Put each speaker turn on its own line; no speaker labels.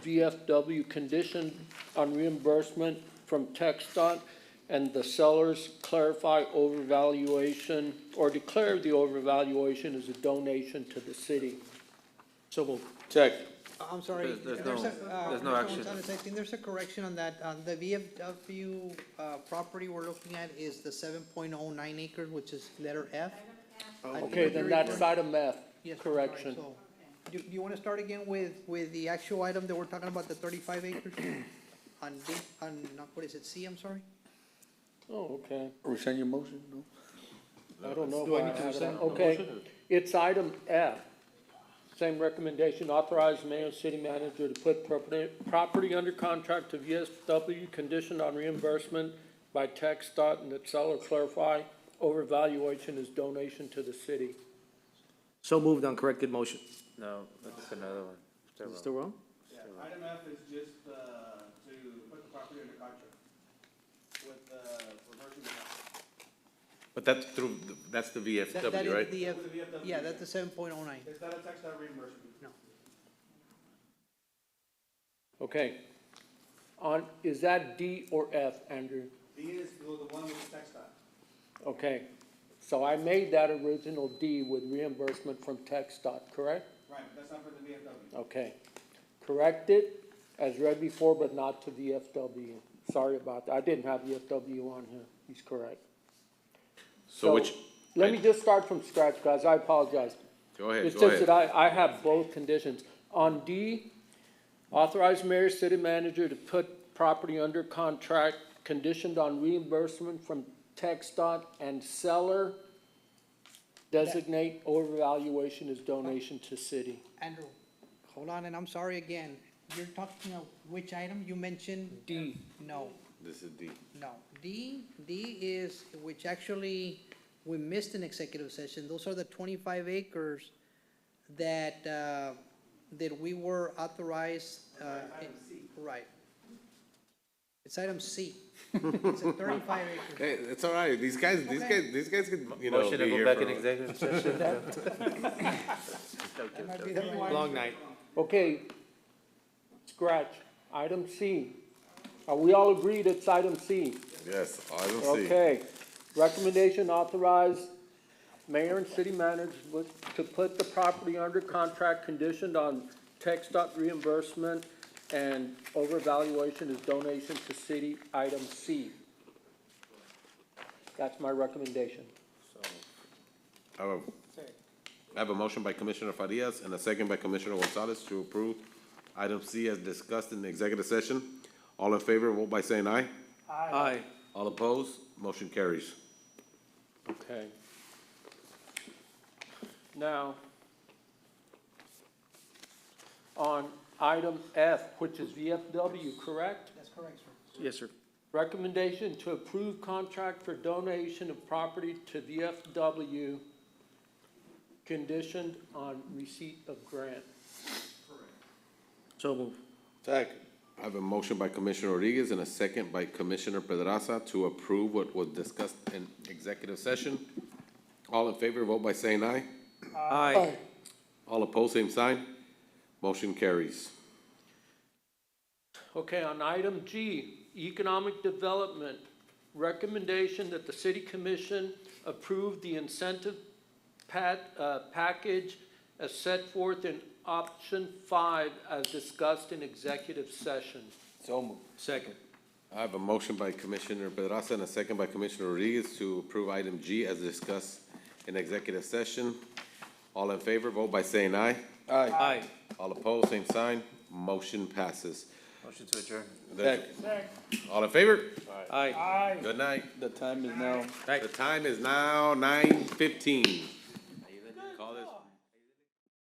VFW conditioned on reimbursement from TechStot and the sellers clarify overvaluation or declare the overvaluation as a donation to the city. So moved.
Check.
Oh, I'm sorry.
There's- there's
there's
no-
a, uh,
there's no
Mr.
action.
Gonzalez, I think there's a correction on that. On the VFW, uh, property we're looking at is the seven point oh nine acres, which is letter F. I think
Oh, Okay,
there
then
is
that's
one-
item F,
yes, I'm sorry,
correction.
so- Do, do you wanna start again with, with the actual item that we're talking about, the thirty-five acres? On D, on, not, what is it, C, I'm sorry?
Oh, okay.
Rescind your motion, no?
I don't know.
Do I
if
need to
had it.
rescind the
Okay,
motion, or-
it's item F. Same recommendation, authorize mayor and city manager to put property, property under contract to VSW conditioned on reimbursement by tax dot and that seller clarify overvaluation is donation to the city.
So moved on corrected motion.
No, that's another one.
Is it still wrong?
Yeah, item F is just, uh, to put the property under contract with, uh, reversion of,
But that's through, the- that's the
That- that is
VFW, right?
the F-
with the VFW.
Yeah, that's the seven point oh nine.
It's not a tax, not reimbursement.
Okay. On, is that D or F, Andrew?
D is the the one with the tax dot.
Okay, so I made that original D with reimbursement from tax dot, correct?
Right, but that's not for the VFW.
Okay. Corrected as read before, but not to the FW. Sorry about that. I didn't have the FW on here. He's correct.
So which,
Let me just start from scratch, guys. I apologize.
go ahead,
It's
go
just
ahead.
that I, I have both conditions. On D, authorize mayor, city manager to put property under contract conditioned on reimbursement from Tech dot and seller designate overvaluation as donation to city.
Andrew, hold on, and I'm sorry again. You're talking of which item? You mentioned?
D.
No.
This is D.
No, D, D is, which actually, we missed an executive session, those are the twenty-five acres that, uh, that we were authorized, uh. Item C. Right. It's item C, it's a thirty-five acres.
Hey, it's all right, these guys, these
Okay.
guys, these guys can, you know,
Motion to
be
go
here
back in
for.
executive session now?
That might be the right-
Long night.
Okay, scratch, item C. Are we all agreed it's item C?
Yes, I don't see.
Okay. Recommendation authorize mayor and city manager with- to put the property under contract conditioned on tech dot reimbursement and overvaluation is donation to city, item C. That's my recommendation.
I have a- I have a motion by Commissioner Farias and a second by Commissioner Gonzalez to approve item C as discussed in the executive session. All in favor, vote by saying aye.
Aye.
All opposed, motion carries.
Okay. Now, on item F, which is VFW, correct?
That's correct, sir.
Yes, sir.
Recommendation to approve contract for donation of property to VFW conditioned on receipt of grant.
So moved.
Second. I have a motion by Commissioner Rodriguez and a second by Commissioner Pedraza to approve what was discussed in executive session. All in favor, vote by saying aye.
Aye.
All opposed, same sign. Motion carries.
Okay, on item G, economic development, recommendation that the city commission approve the incentive pat, uh, package as set forth in option five as discussed in executive session.
So moved. Second.
I have a motion by Commissioner Pedraza and a second by Commissioner Rodriguez to approve item G as discussed in executive session. All in favor, vote by saying aye.
Aye.
Aye.
All opposed, same sign. Motion passes.
Motion to adjourn.
All in favor?
Aye.
Good night.
The time is now.
The time is now nine fifteen.